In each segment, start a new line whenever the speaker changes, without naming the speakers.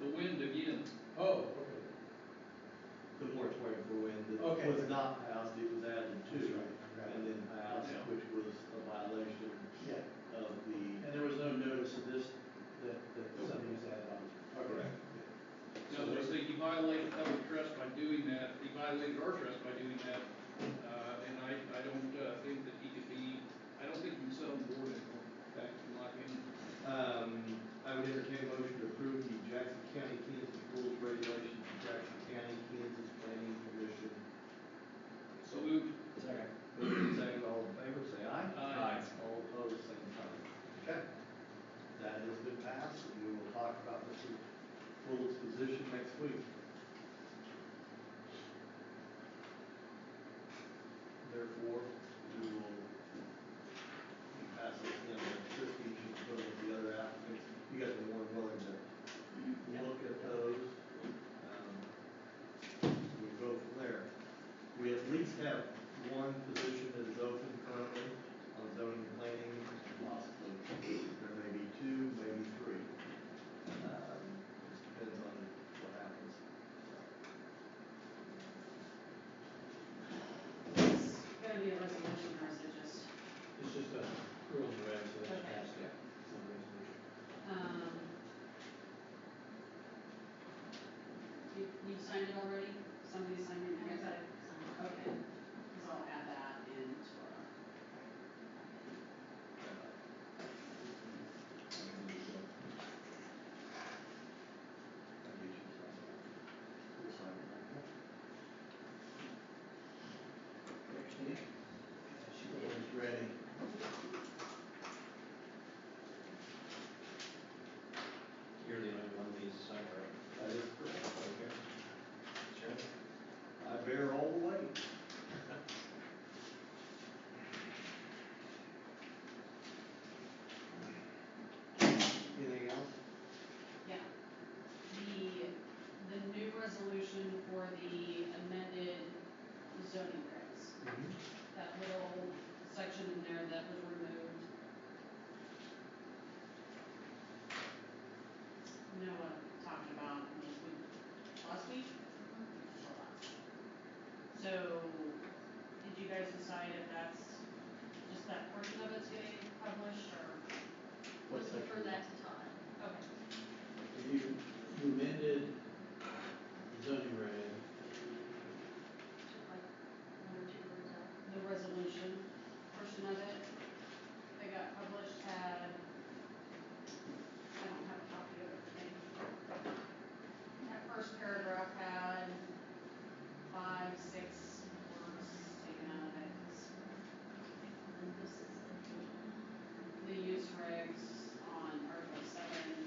The wind again,
Oh,
The moratorium for wind
Okay.
that was not passed, it was added to.
That's right, I forgot.
And then passed,
Yeah.
which was a violation
okay, yeah,
of the.
and there was no notice of this, that, that something was added on. Okay.
no, they say you violated public trust by doing that, he violated our trust by doing that, uh, and I, I don't, uh, think that he could be, I don't think he can sit on the board anymore, back to like him.
Um, I would entertain a motion to approve the Jackson County, Kansas rules regulations, for Jackson County, Kansas Planning Commission.
So moved.
Second. Moving second, all in favor, say aye.
Aye.
All opposed, same sign. Okay. That has been passed, and we will talk about Mr. Fuller's position next week. Therefore, we will pass this in, and Christie should go with the other applicants. You guys are more than willing to look at those. Um, We go from there. We at least have one position that is open currently on zoning and planning, possibly. There may be two, maybe three. Um, Just depends on what happens.
It's gonna be a resolution, or is it just,
It's just a rules and regs, so that's
Okay.
passed.
Yeah.
It's not a resolution.
um, you, you signed it already? Somebody signed it, I guess I signed it, okay, so I'll add that in to our.
She was ready.
You're the only one of these signed, right?
That is correct, okay.
Sure.
I bear all the weight. Anything else?
Yeah. The, the new resolution for the amended zoning regs,
Mm-hmm.
that little section in there that was removed. You know what I'm talking about, I mean, we, last week? Or last. So, did you guys decide if that's, just that portion of it's getting published, or?
What's that?
Refer that to Todd.
Okay.
You, you amended the zoning reg,
Took like one or two words out.
the resolution portion of it that got published had, I don't have a copy of it, today. That first paragraph had five, six words taken out of it, 'cause
And then this is the.
the use regs on Article seven,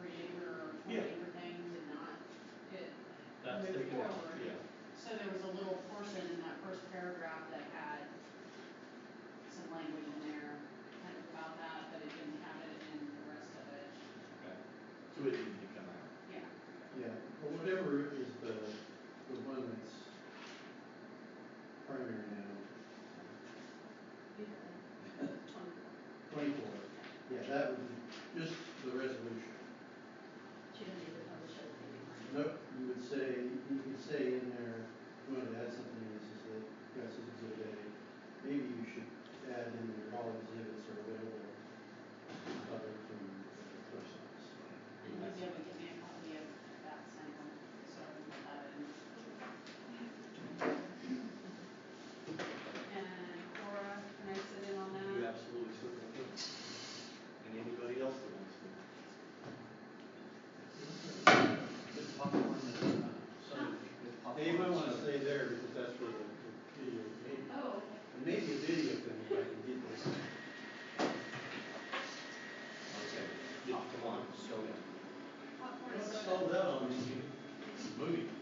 three acre or four
Yeah.
acre thing did not get
That's
moved
taken out,
forward.
yeah.
So there was a little portion in that first paragraph that had some language in there, kind of about that, but it didn't have it in the rest of it.
So it didn't come out.
Yeah.
yeah, or whatever is the, the one that's primary now, twenty-four. Yeah, that would be just the resolution.
She didn't even publish it, maybe.
Nope, you would say, you could say in there, you want to add something, this is the, this is exhibit A. Maybe you should add in there, all exhibits are available, covered from the clerk's office.
And you'll be able to give me a copy of that sample, so I can put that in. And Cora, can I sit in on that?
You absolutely certainly can. And anybody else that wants to.
With popcorn and, uh, so- with popcorn
Anyone
and
want to
soda.
stay there, because that's where the the video, may-
Oh,
maybe a video thing, if I can get this.
Okay, popcorn, soda.
popcorn
Don't
soda.
slow down, movie.
Oh,